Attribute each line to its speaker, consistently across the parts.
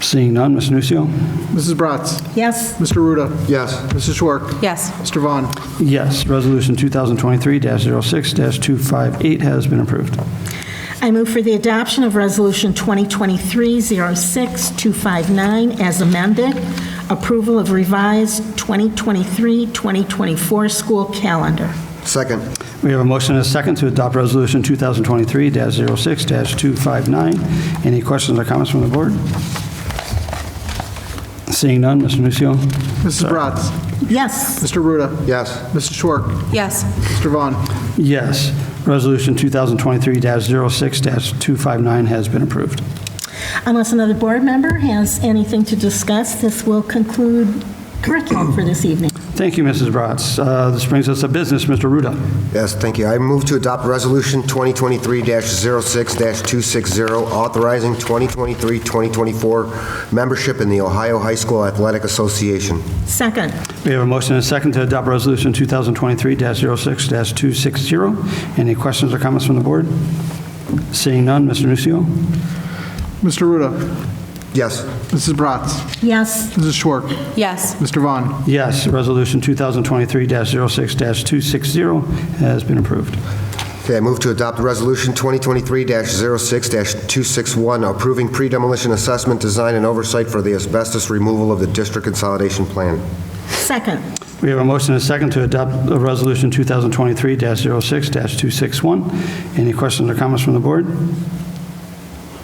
Speaker 1: Seeing none, Ms. Nucio?
Speaker 2: Mrs. Bratz.
Speaker 3: Yes.
Speaker 2: Mr. Ruda.
Speaker 4: Yes.
Speaker 2: Mrs. Schwark.
Speaker 3: Yes.
Speaker 2: Mr. Vaughn.
Speaker 1: Yes, Resolution 2023-06-258 has been approved.
Speaker 3: I move for the adoption of Resolution 2023-06-259 as amended, approval of revised 2023-2024 school calendar.
Speaker 4: Second.
Speaker 1: We have a motion and a second to adopt Resolution 2023-06-259. Any questions or comments from the board? Seeing none, Mr. Nucio?
Speaker 2: Mrs. Bratz.
Speaker 3: Yes.
Speaker 2: Mr. Ruda.
Speaker 4: Yes.
Speaker 2: Mrs. Schwark.
Speaker 3: Yes.
Speaker 2: Mr. Vaughn.
Speaker 1: Yes, Resolution 2023-06-259 has been approved.
Speaker 3: Unless another board member has anything to discuss, this will conclude curriculum for this evening.
Speaker 1: Thank you, Mrs. Bratz. Uh, This brings us to business, Mr. Ruda.
Speaker 4: Yes, thank you. I move to adopt Resolution 2023-06-260, authorizing 2023-2024 membership in the Ohio High School Athletic Association.
Speaker 3: Second.
Speaker 1: We have a motion and a second to adopt Resolution 2023-06-260. Any questions or comments from the board? Seeing none, Mr. Nucio?
Speaker 2: Mr. Ruda.
Speaker 4: Yes.
Speaker 2: Mrs. Bratz.
Speaker 3: Yes.
Speaker 2: Mrs. Schwark.
Speaker 3: Yes.
Speaker 2: Mr. Vaughn.
Speaker 1: Yes, Resolution 2023-06-260 has been approved.
Speaker 4: Okay, I move to adopt Resolution 2023-06-261, approving pre-demolition assessment, design, and oversight for the asbestos removal of the district consolidation plan.
Speaker 3: Second.
Speaker 1: We have a motion and a second to adopt uh, Resolution 2023-06-261. Any questions or comments from the board?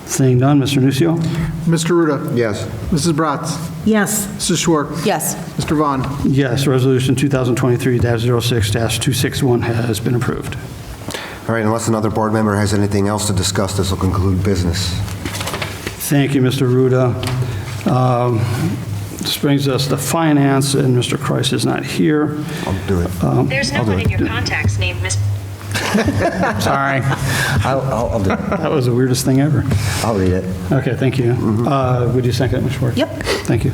Speaker 1: Seeing none, Mr. Nucio?
Speaker 2: Mr. Ruda.
Speaker 4: Yes.
Speaker 2: Mrs. Bratz.
Speaker 3: Yes.
Speaker 2: Mrs. Schwark.
Speaker 3: Yes.
Speaker 2: Mr. Vaughn.
Speaker 1: Yes, Resolution 2023-06-261 has been approved.
Speaker 4: All right, unless another board member has anything else to discuss, this will conclude business.
Speaker 1: Thank you, Mr. Ruda. Um, This brings us to finance, and Mr. Kreis is not here. Um,
Speaker 4: I'll do it.
Speaker 5: There's no one in your contacts named Miss.
Speaker 1: Sorry.
Speaker 4: I'll, I'll I'll do it.
Speaker 1: That was the weirdest thing ever.
Speaker 4: I'll read it.
Speaker 1: Okay, thank you.
Speaker 5: Mm-hmm.
Speaker 1: Uh, Would you second that, Mr. Ward?
Speaker 3: Yep.
Speaker 1: Thank you.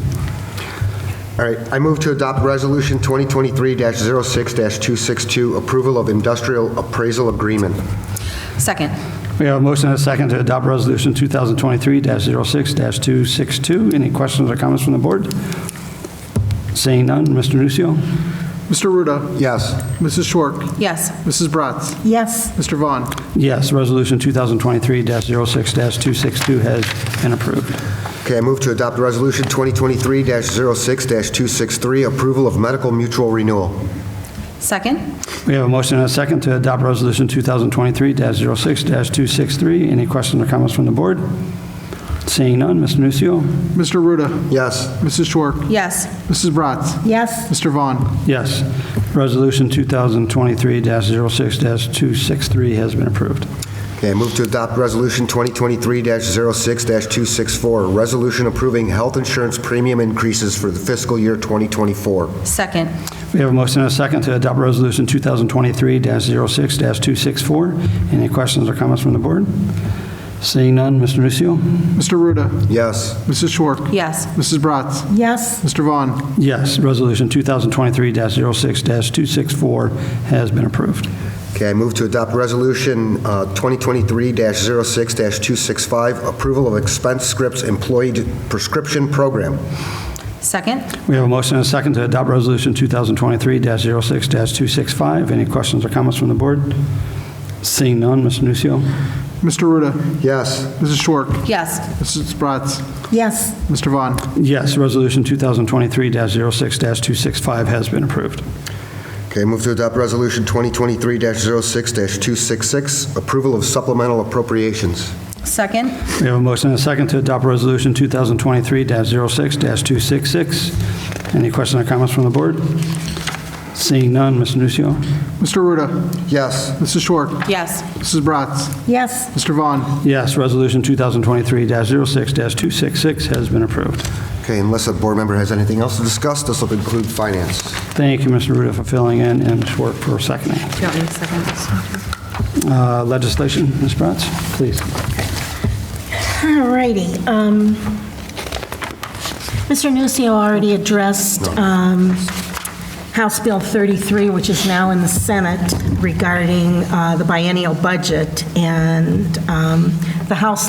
Speaker 4: All right, I move to adopt Resolution 2023-06-262, approval of industrial appraisal agreement.
Speaker 6: Second.
Speaker 1: We have a motion and a second to adopt Resolution 2023-06-262. Any questions or comments from the board? Seeing none, Mr. Nucio.
Speaker 2: Mr. Ruda.
Speaker 4: Yes.
Speaker 2: Mrs. Schwark.
Speaker 6: Yes.
Speaker 2: Mrs. Bratz.
Speaker 3: Yes.
Speaker 2: Mr. Vaughn.
Speaker 1: Yes, Resolution 2023-06-262 has been approved.
Speaker 4: Okay, I move to adopt Resolution 2023-06-263, approval of medical mutual renewal.
Speaker 6: Second.
Speaker 1: We have a motion and a second to adopt Resolution 2023-06-263. Any questions or comments from the board? Seeing none, Mr. Nucio.
Speaker 2: Mr. Ruda.
Speaker 4: Yes.
Speaker 2: Mrs. Schwark.
Speaker 6: Yes.
Speaker 2: Mrs. Bratz.
Speaker 3: Yes.
Speaker 2: Mr. Vaughn.
Speaker 1: Yes, Resolution 2023-06-263 has been approved.
Speaker 4: Okay, I move to adopt Resolution 2023-06-264, resolution approving health insurance premium increases for the fiscal year 2024.
Speaker 6: Second.
Speaker 1: We have a motion and a second to adopt Resolution 2023-06-264. Any questions or comments from the board? Seeing none, Mr. Nucio.
Speaker 2: Mr. Ruda.
Speaker 4: Yes.
Speaker 2: Mrs. Schwark.
Speaker 6: Yes.
Speaker 2: Mrs. Bratz.
Speaker 3: Yes.
Speaker 2: Mr. Vaughn.
Speaker 1: Yes, Resolution 2023-06-264 has been approved.
Speaker 4: Okay, I move to adopt Resolution uh, 2023-06-265, approval of expense scripts employee prescription program.
Speaker 6: Second.
Speaker 1: We have a motion and a second to adopt Resolution 2023-06-265. Any questions or comments from the board? Seeing none, Mr. Nucio.
Speaker 2: Mr. Ruda.
Speaker 4: Yes.
Speaker 2: Mrs. Schwark.
Speaker 6: Yes.
Speaker 2: Mrs. Bratz.
Speaker 3: Yes.
Speaker 2: Mr. Vaughn.
Speaker 1: Yes, Resolution 2023-06-265 has been approved.
Speaker 4: Okay, move to adopt Resolution 2023-06-266, approval of supplemental appropriations.
Speaker 6: Second.
Speaker 1: We have a motion and a second to adopt Resolution 2023-06-266. Any questions or comments from the board? Seeing none, Mr. Nucio.
Speaker 2: Mr. Ruda.
Speaker 4: Yes.
Speaker 2: Mrs. Schwark.
Speaker 6: Yes.
Speaker 2: Mrs. Bratz.
Speaker 3: Yes.
Speaker 2: Mr. Vaughn.
Speaker 1: Yes, Resolution 2023-06-266 has been approved.
Speaker 4: Okay, unless a board member has anything else to discuss, this will conclude finance.
Speaker 1: Thank you, Mr. Ruda, for filling in and Ms. Schwark for seconding.
Speaker 6: Do you want me to second?
Speaker 1: Uh, Legislation, Ms. Bratz, please.
Speaker 3: All righty. um, Mr. Nucio already addressed um, House Bill 33, which is now in the Senate regarding uh, the biennial budget, and um, the House